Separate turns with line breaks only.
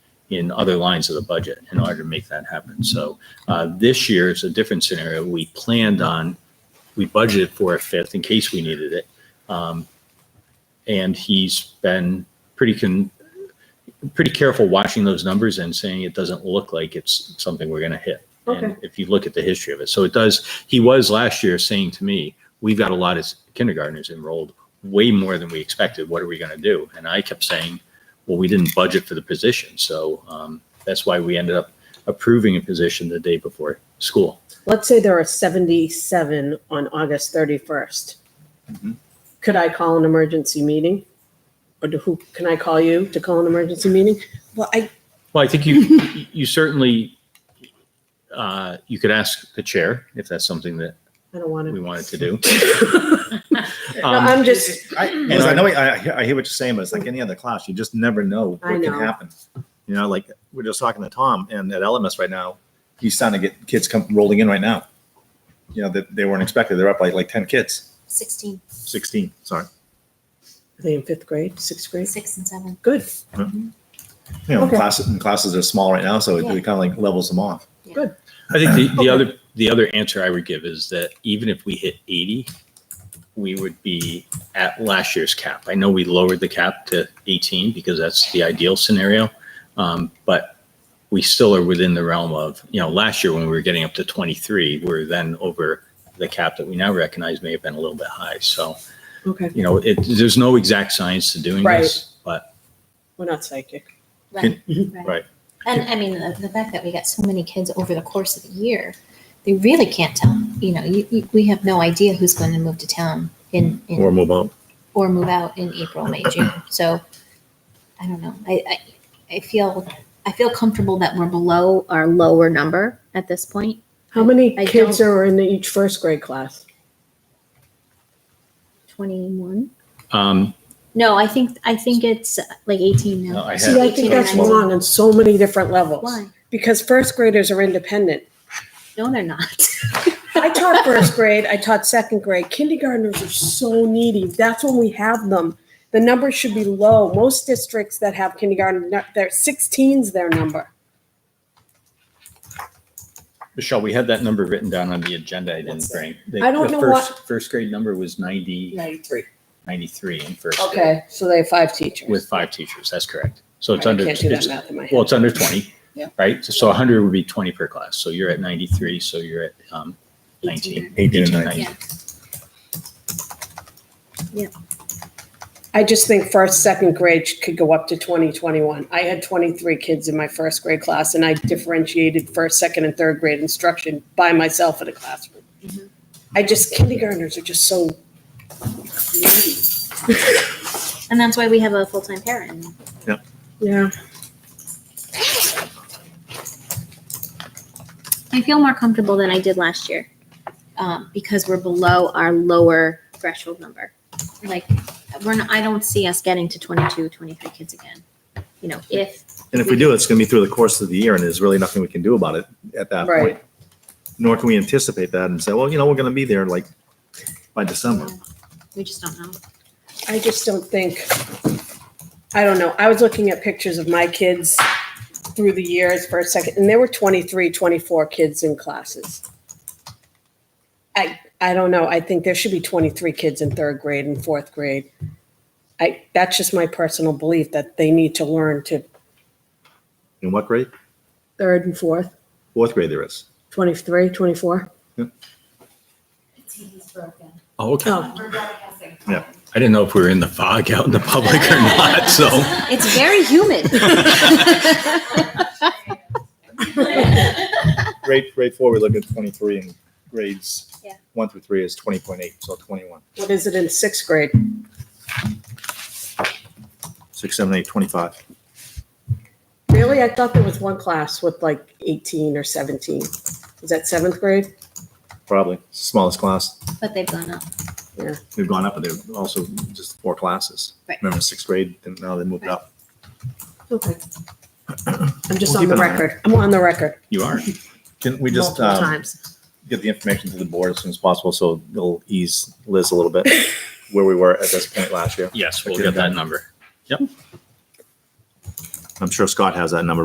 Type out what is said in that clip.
in other lines of the budget in order to make that happen. So uh, this year is a different scenario. We planned on, we budgeted for a fifth in case we needed it. Um, And he's been pretty con, pretty careful watching those numbers and saying it doesn't look like it's something we're going to hit. And
Okay.
If you look at the history of it, so it does, he was last year saying to me, we've got a lot of kindergartners enrolled, way more than we expected. What are we going to do? And I kept saying, well, we didn't budget for the position. So um, that's why we ended up approving a position the day before school.
Let's say there are 77 on August 31st.
Mm-hmm.
Could I call an emergency meeting? Or do who, can I call you to call an emergency meeting?
Well, I,
Well, I think you, you certainly, uh, you could ask the chair if that's something that
I don't want
we
to.
wanted to do.
No,
Um,
I'm just,
I, listen, I know, I, I hear- I hear what you're saying, but it's like any other class, you just never know
I
what can
know.
happen. You know, like, we're just talking to Tom and at LMS right now, he's starting to get kids come rolling in right now. You know, that they weren't expected, they're up like, like ten kids,
16,
sixteen, sorry.
are they in fifth grade, sixth grade?
six and seven.
Good.
You know,
Okay.
classes, and classes are small right now, so it
Yeah.
kind of like levels them off.
I think the,
Okay.
the other, the other answer I would give is that even if we hit eighty, we would be at last year's cap. I know we lowered the cap to eighteen because that's the ideal scenario. Um, but we still are within the realm of, you know, last year when we were getting up to twenty-three, we we're then over the cap that we now recognize may have been a little bit high. So,
Okay,
you know, it, there's no exact science to doing this, but
we're not psychic.
Right,
right.
And I mean, uh, the, the fact that we got so many kids over the course of the year, they really can't tell. You know, you, you, we have no idea who's going to move to town in, in
move on.
or move out in April, May, June. So I don't know. I, I, I feel I feel comfortable that we're below our lower number at this point.
How many
I
kids
don't-
are in each first grade class?
Twenty one.
Um,
No, I think I think it's uh, like eighteen now.
No, I
See,
have-
I think that's
18 or 19.
wrong on so many different levels.
Why?
Because first graders are independent.
No, they're not.
I taught first grade, I taught second grade. Kindergartners are so needy. That's when we have them. The number should be low. Most districts that have kindergarten, they're 16's their number.
Michelle, we had that number written down on the agenda. I didn't bring. The-
I don't
the
know
first- First grade number was ninety.
93.
93 in first grade
Okay, so they have five teachers.
with five teachers. That's correct. So
I
it's under,
can't do that
it's-
math in my
well,
head.
it's under 20,
Yeah.
right? So 100 would be 20 per class. So you're at 93, so you're at um, 19.
Eighteen and
18,
nineteen.
19.
I just think first, second grade could go up to 20, 21. I had 23 kids in my first grade class and I differentiated first, second and third grade instruction by myself in a classroom. I just, kindergartners are just so needy.
And that's why we have a full time parent.
Yeah.
I feel more comfortable than I did last year um, because we're below our lower threshold number. Like, we're not, I don't see us getting to 22, 23 kids again. You know, if
And if we do, it's gonna be through the course of the year and there's really nothing we can do about it at that
Right.
point. Nor can we anticipate that and say, well, you know, we're gonna be there like by December.
we just don't know.
I just don't think, I don't know. I was looking at pictures of my kids through the years for a second, and there were 23, 24 kids in classes. I, I don't know. I think there should be 23 kids in third grade and fourth grade. I, that's just my personal belief that they need to learn to
In what grade?
third and fourth,
Fourth grade there is.
23, 24.
TV's broken.
Oh, okay.
Oh,
We're broadcasting.
Yeah.
I didn't know if we were in the fog out in the public or not, so.
It's very humid.
Grade, grade four, we look at twenty-three and grades
Yeah.
one through three is twenty point eight, so twenty-one.
what is it in sixth grade?
Six, seven, eight, twenty-five.
Really? I thought there was one class with like 18 or 17. Is that seventh grade?
Probably. Smallest class.
but they've gone up.
We've gone up, but they're also just four classes.
Right.
Remember sixth grade, and now they moved up.
Okay. I'm just
We'll
on
keep
the
an eye on it.
record. I'm on the record
You are.
Can we just,
multiple
um,
times.
get the information to the board as soon as possible, so it'll ease Liz a little bit where we were at this point last year?
Yes, we'll get that number.
I'm sure Scott has that number